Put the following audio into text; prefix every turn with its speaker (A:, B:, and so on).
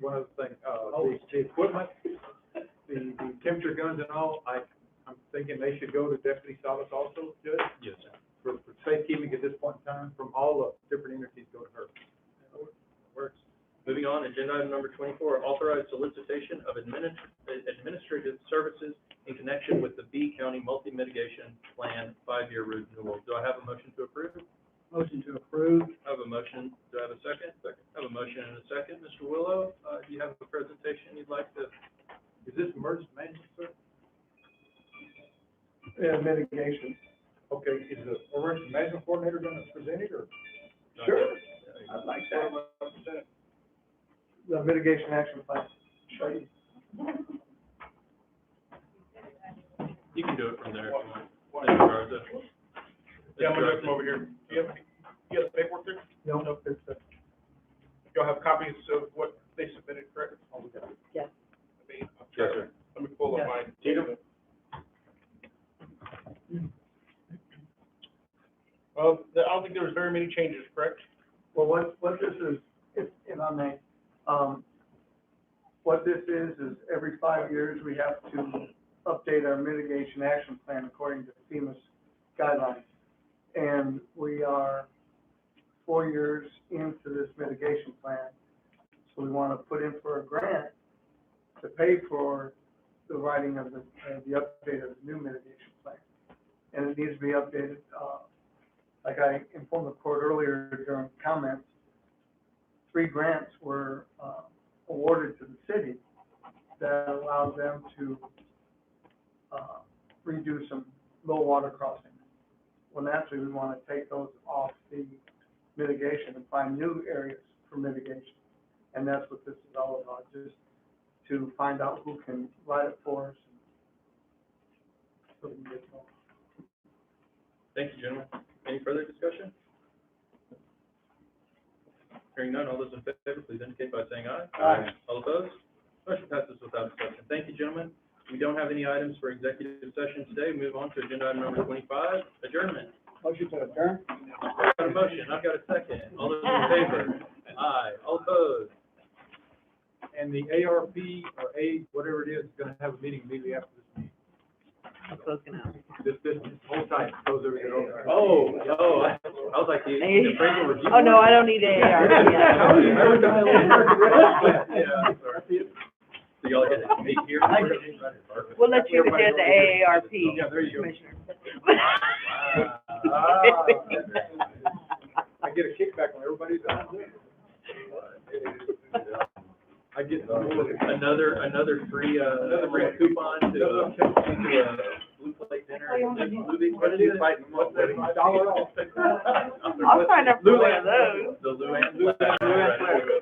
A: one other thing, uh,
B: Oh.
A: the, the equipment, the, the temperature guns and all, I, I'm thinking they should go to Deputy Salas also, Judge,
C: Yes.
A: for, for safekeeping at this point in time, from all the different entities go to her.
C: Works. Moving on, agenda item number twenty-four, authorize solicitation of adminis- administrative services in connection with the B County Multi-Mitigation Plan five-year renewal. Do I have a motion to approve?
A: Motion to approve.
C: I have a motion, do I have a second? Second. I have a motion and a second. Mr. Willow, uh, do you have a presentation you'd like to?
A: Is this emergency management, sir?
B: Yeah, mitigation.
A: Okay, is the emergency management coordinator gonna present it, or?
B: Sure. I'd like that. The mitigation action plan.
A: Sure.
C: You can do it from there if you want. Mr. Garza.
D: Yeah, I'm
C: Mr.
D: gonna
C: Garza.
D: go from over here. Do you have, any- do you have the paperwork there?
B: No, no, it's, uh,
D: Y'all have copies of what they submitted, correct?
E: Yes.
D: I mean, I'm
C: Yes,
D: trying-
C: sir.
D: Let me pull up mine.
C: Tatum?
D: Well, I don't think there was very many changes, correct?
B: well, what, what this is, if, if I may, um, what this is, is every five years, we have to update our mitigation action plan according to FEMA's guidelines. And we are four years into this mitigation plan, so we want to put in for a grant to pay for the writing of the, of the update of the new mitigation plan. And it needs to be updated, uh, like I informed the court earlier during comments, three grants were, uh, awarded to the city that allowed them to, uh, redo some low water crossings. Well, naturally, we wanna take those off the mitigation and find new areas for mitigation. And that's what this is all about, just to find out who can write it for us. So we can get going.
C: Thank you, gentlemen. Any further discussion? Hearing none, all those in favor, please indicate by saying aye.
B: Aye.
C: All opposed? Motion passes without exception. Thank you, gentlemen. We don't have any items for executive session today. We Move on to agenda item number twenty-five, adjournment.
A: Motion to adjourn.
C: I've got a motion, I've got a second. All those in favor? Aye. All opposed?
A: and the ARP or A, whatever it is, is gonna have a meeting immediately after this meeting.
E: I'm closing out.
A: This, this, hold tight, those are, over.
C: Oh, oh, I I was like, the, the appraisal review.
E: Oh, no, I don't need AARP yet.
C: Yeah, I'm sorry. So y'all get to meet here?
E: We'll let you get the AARP,
A: Yeah, there you go.
E: Commissioner.
A: Ah, I get a kickback when everybody's out. I get.
C: Another, another free, uh, another free coupon to, uh, to a Blue Plate dinner, and movie, what is it? What's that?
A: Dollar off.
E: I'll sign up for one of those.
C: The Luann. Luann.